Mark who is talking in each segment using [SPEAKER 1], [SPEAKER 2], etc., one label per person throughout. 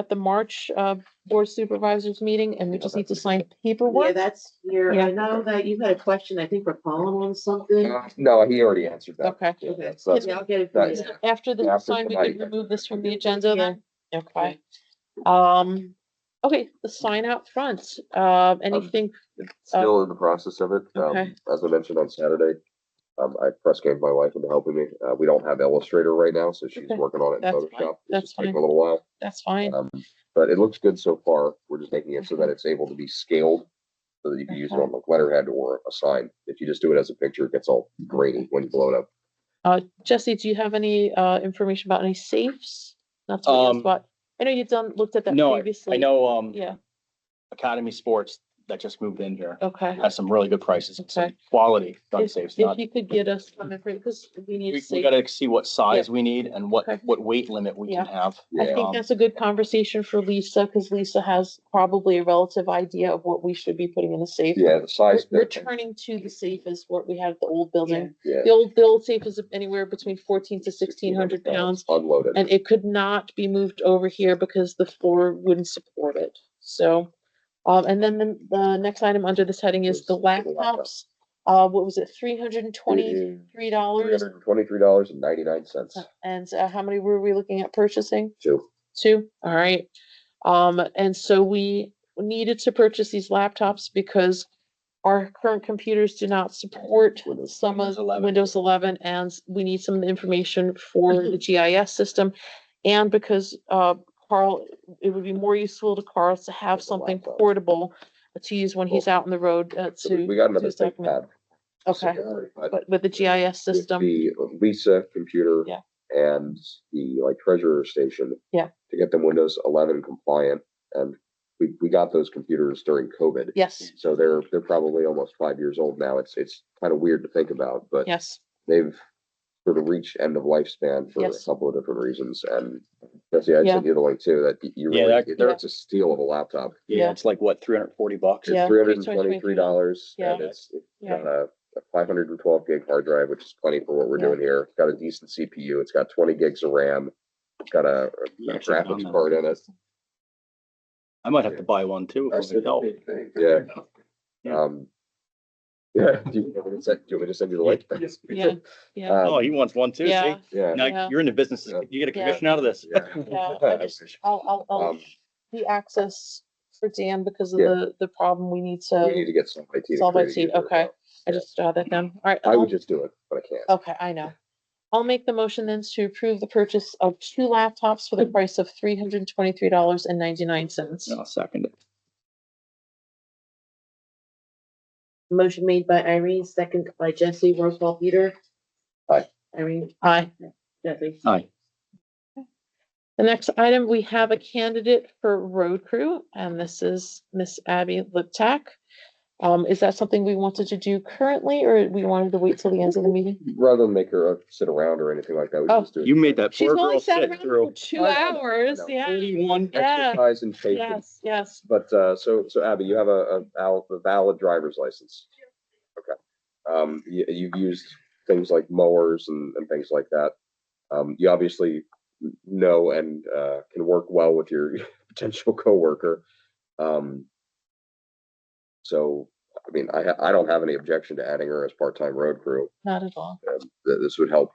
[SPEAKER 1] at the March uh Board of Supervisors meeting and we just need to sign
[SPEAKER 2] Yeah,
[SPEAKER 1] paperwork.
[SPEAKER 2] that's here.
[SPEAKER 1] Yeah.
[SPEAKER 2] I know that you had a question, I think, for Colin on something.
[SPEAKER 3] No, he already answered that.
[SPEAKER 1] Okay,
[SPEAKER 2] Okay,
[SPEAKER 3] So
[SPEAKER 2] Yeah, I'll get it for
[SPEAKER 3] that's-
[SPEAKER 2] you.
[SPEAKER 1] after
[SPEAKER 3] Yeah,
[SPEAKER 1] the
[SPEAKER 3] after
[SPEAKER 1] sign, we can
[SPEAKER 3] tonight.
[SPEAKER 1] remove this from the agenda then. Okay. Um, okay, the sign out front,
[SPEAKER 4] Oh.
[SPEAKER 1] uh, anything,
[SPEAKER 3] Still in the process of it. Um,
[SPEAKER 1] Uh, okay.
[SPEAKER 3] as I mentioned on Saturday, um, I press gave my wife into helping me. Uh, we don't have Illustrator right now, so she's
[SPEAKER 1] Okay,
[SPEAKER 3] working on it in
[SPEAKER 1] that's fine,
[SPEAKER 3] Photoshop.
[SPEAKER 1] that's
[SPEAKER 3] It's taking
[SPEAKER 1] fine.
[SPEAKER 3] a little while.
[SPEAKER 1] that's fine.
[SPEAKER 3] Um, but it looks good so far. We're just making it so that it's able to be scaled. So that you can use it
[SPEAKER 1] Okay.
[SPEAKER 3] on like letterhead or a sign. If you just do it as a picture, it gets all grainy when you blow it up.
[SPEAKER 1] Uh, Jesse, do you have any uh information about any safes? That's what I
[SPEAKER 4] Um,
[SPEAKER 1] asked about. I know you've done, looked at that
[SPEAKER 4] No,
[SPEAKER 1] previously.
[SPEAKER 4] I know, um,
[SPEAKER 1] Yeah,
[SPEAKER 4] Academy Sports that just moved in here
[SPEAKER 1] okay.
[SPEAKER 4] has some really good prices. and some
[SPEAKER 1] Okay.
[SPEAKER 4] Quality gun
[SPEAKER 1] If
[SPEAKER 4] safes,
[SPEAKER 1] if
[SPEAKER 4] not,
[SPEAKER 1] you could get us some information, because we need
[SPEAKER 4] we,
[SPEAKER 1] to
[SPEAKER 4] we
[SPEAKER 1] see.
[SPEAKER 4] gotta see what size we need and what,
[SPEAKER 1] Okay.
[SPEAKER 4] what weight limit we can have.
[SPEAKER 1] I think
[SPEAKER 4] Um,
[SPEAKER 1] that's a good conversation for Lisa, because Lisa has probably a relative idea of what we should be putting in the safe.
[SPEAKER 3] Yeah, the size.
[SPEAKER 1] Re-
[SPEAKER 3] bit,
[SPEAKER 1] Returning to the safe is what we had at the old building.
[SPEAKER 3] Yeah.
[SPEAKER 1] The old, the old safe is anywhere between fourteen to sixteen hundred pounds,
[SPEAKER 3] Unloaded.
[SPEAKER 1] and it could not be moved over here because the floor wouldn't support it, so. Um, and then the, the next item under this heading is the
[SPEAKER 3] Was the laptop.
[SPEAKER 1] laptops. Uh, what was it, three hundred and twenty-three dollars?
[SPEAKER 3] Twenty-three dollars and ninety-nine cents.
[SPEAKER 1] And uh, how many were we looking at purchasing?
[SPEAKER 3] Two.
[SPEAKER 1] Two, all right. Um, and so we needed to purchase these laptops because our current computers do not support
[SPEAKER 3] Windows-
[SPEAKER 1] some of
[SPEAKER 4] Windows 11.
[SPEAKER 1] Windows eleven, and we need some information for the GIS system. And because, uh, Carl, it would be more useful to Carl to have
[SPEAKER 3] With a
[SPEAKER 1] something
[SPEAKER 3] laptop.
[SPEAKER 1] portable to use when he's out on the road uh,
[SPEAKER 3] So we-
[SPEAKER 1] to,
[SPEAKER 3] We got another
[SPEAKER 1] to
[SPEAKER 3] thing
[SPEAKER 1] document.
[SPEAKER 3] pad.
[SPEAKER 1] okay,
[SPEAKER 3] But
[SPEAKER 1] but with the GIS
[SPEAKER 3] with
[SPEAKER 1] system.
[SPEAKER 3] The Lisa computer.
[SPEAKER 1] Yeah.
[SPEAKER 3] And the like treasurer station.
[SPEAKER 1] Yeah.
[SPEAKER 3] To get them Windows eleven compliant and we, we got those computers during COVID.
[SPEAKER 1] Yes,
[SPEAKER 3] So they're, they're probably almost five years old now. It's, it's kind of weird to think about, but
[SPEAKER 1] yes,
[SPEAKER 3] they've sort of reached end of lifespan for a
[SPEAKER 1] Yes.
[SPEAKER 3] couple of different reasons and Jesse, I
[SPEAKER 1] Yeah.
[SPEAKER 3] sent you the link too, that y- you
[SPEAKER 4] Yeah,
[SPEAKER 3] really,
[SPEAKER 4] that-
[SPEAKER 1] Yeah.
[SPEAKER 3] it's a steal of a laptop.
[SPEAKER 1] Yeah.
[SPEAKER 4] Yeah, it's like what, three hundred and forty bucks?
[SPEAKER 1] Yeah.
[SPEAKER 3] It's three hundred and twenty-three dollars
[SPEAKER 1] Yeah.
[SPEAKER 3] and it's it's
[SPEAKER 1] Yeah.
[SPEAKER 3] got a five hundred and twelve gig hard drive, which is plenty for what we're
[SPEAKER 1] Yeah.
[SPEAKER 3] doing here. It's Got a decent CPU. It's got twenty gigs of RAM. It's got a a graphics card in it.
[SPEAKER 4] I might have to buy one too. if it would help.
[SPEAKER 3] Yeah.
[SPEAKER 4] Yeah.
[SPEAKER 3] Um. Yeah, do you want me to send, do you want me to send you the link?
[SPEAKER 1] yeah, yeah.
[SPEAKER 3] Um,
[SPEAKER 4] Oh, he wants one too, see?
[SPEAKER 1] Yeah,
[SPEAKER 3] Yeah.
[SPEAKER 1] Yeah.
[SPEAKER 4] Now, you're in the business,
[SPEAKER 3] Yeah.
[SPEAKER 4] you get a
[SPEAKER 1] Yeah.
[SPEAKER 4] commission out of this.
[SPEAKER 3] yeah.
[SPEAKER 1] yeah.
[SPEAKER 3] I
[SPEAKER 1] I just,
[SPEAKER 3] wish.
[SPEAKER 1] I'll, I'll, I'll,
[SPEAKER 3] Um,
[SPEAKER 1] the access for Dan because of
[SPEAKER 3] Yeah.
[SPEAKER 1] the, the problem we need
[SPEAKER 3] We need
[SPEAKER 1] to,
[SPEAKER 3] to get somebody to.
[SPEAKER 1] Solve
[SPEAKER 3] create a
[SPEAKER 1] IT,
[SPEAKER 3] user
[SPEAKER 1] okay. Um,
[SPEAKER 3] account.
[SPEAKER 1] I just jot that down. All right.
[SPEAKER 3] I
[SPEAKER 1] I'll-
[SPEAKER 3] would just do it, but I can't.
[SPEAKER 1] Okay, I know. I'll make the motion then to approve the purchase of two laptops for the price of three hundred and twenty-three dollars and ninety-nine cents.
[SPEAKER 4] I'll second it.
[SPEAKER 2] Motion made by Irene, second by Jesse, roll call Peter.
[SPEAKER 3] Aye.
[SPEAKER 2] Irene,
[SPEAKER 1] Aye.
[SPEAKER 2] Jesse.
[SPEAKER 4] Aye.
[SPEAKER 1] The next item, we have a candidate for road crew, and this is Miss Abby Liptak. Um, is that something we wanted to do currently, or we wanted to wait till the end of the meeting?
[SPEAKER 3] Rather than make her uh, sit around or anything like that, we
[SPEAKER 1] Oh.
[SPEAKER 3] should just do it.
[SPEAKER 4] You made that
[SPEAKER 1] She's
[SPEAKER 4] poor
[SPEAKER 1] only
[SPEAKER 4] girl
[SPEAKER 1] sat
[SPEAKER 4] sit
[SPEAKER 1] around for
[SPEAKER 4] through
[SPEAKER 1] two
[SPEAKER 3] I- I know.
[SPEAKER 1] hours, yeah,
[SPEAKER 4] thirty-one.
[SPEAKER 1] Yeah.
[SPEAKER 3] Exercise and patience.
[SPEAKER 1] yes, yes.
[SPEAKER 3] But, uh, so, so Abby, you have a, a val- a valid driver's license? Okay. Um, you, you've used things like mowers and, and things like that. Um, you obviously n- know and, uh, can work well with your potential coworker. Um, so, I mean, I, ha- I don't have any objection to adding her as part-time road crew.
[SPEAKER 1] Not at all.
[SPEAKER 3] Um, th- this would help.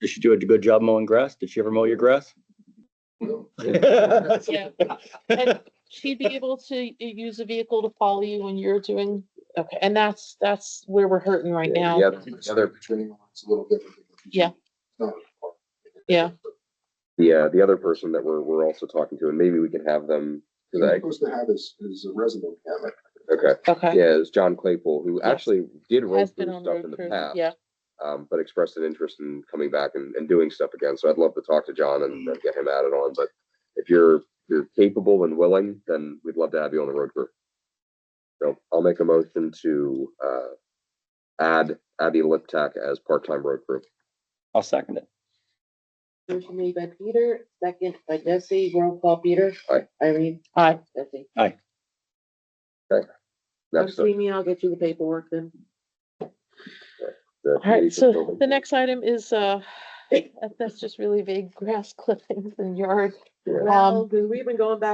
[SPEAKER 4] Did she do a good job mowing grass? Did she ever mow your grass?
[SPEAKER 1] Yeah. And she'd be able to y- use a vehicle to follow you when you're doing, okay, and that's, that's where we're hurting right
[SPEAKER 3] Yeah,
[SPEAKER 1] now.
[SPEAKER 3] the other- the other
[SPEAKER 5] Training is a little different. than what you
[SPEAKER 1] Yeah.
[SPEAKER 5] do. It's not a part.
[SPEAKER 1] Yeah.
[SPEAKER 3] The, uh, the other person that we're, we're also talking to, and maybe we can have them,
[SPEAKER 5] What you're
[SPEAKER 3] today.
[SPEAKER 5] supposed to have is, is a resume cabinet.
[SPEAKER 3] okay,
[SPEAKER 1] Okay.
[SPEAKER 3] yeah, it's John Claypool, who actually did road
[SPEAKER 1] Has been
[SPEAKER 3] crew
[SPEAKER 1] on
[SPEAKER 3] stuff in
[SPEAKER 1] road
[SPEAKER 3] the
[SPEAKER 1] crew,
[SPEAKER 3] past.
[SPEAKER 1] yeah,
[SPEAKER 3] Um, but expressed an interest in coming back and, and doing stuff again, so I'd love to talk to John and and get him added on, but if you're, you're capable and willing, then we'd love to have you on the road crew. So I'll make a motion to, uh, add Abby Liptak as part-time road crew.
[SPEAKER 4] I'll second it.
[SPEAKER 2] Motion made by Peter, second by Jesse, roll call Peter.
[SPEAKER 3] Aye.
[SPEAKER 2] Irene,
[SPEAKER 1] aye,
[SPEAKER 2] Jesse. Come
[SPEAKER 3] Next up.
[SPEAKER 2] see me, I'll get you the paperwork then.
[SPEAKER 3] the
[SPEAKER 1] all right,
[SPEAKER 3] police
[SPEAKER 1] so
[SPEAKER 3] building.
[SPEAKER 1] the next item is, uh, That- That's just really big grass clippings and yard.
[SPEAKER 3] Yeah.
[SPEAKER 1] Um,
[SPEAKER 2] Well, 'cause we've been going back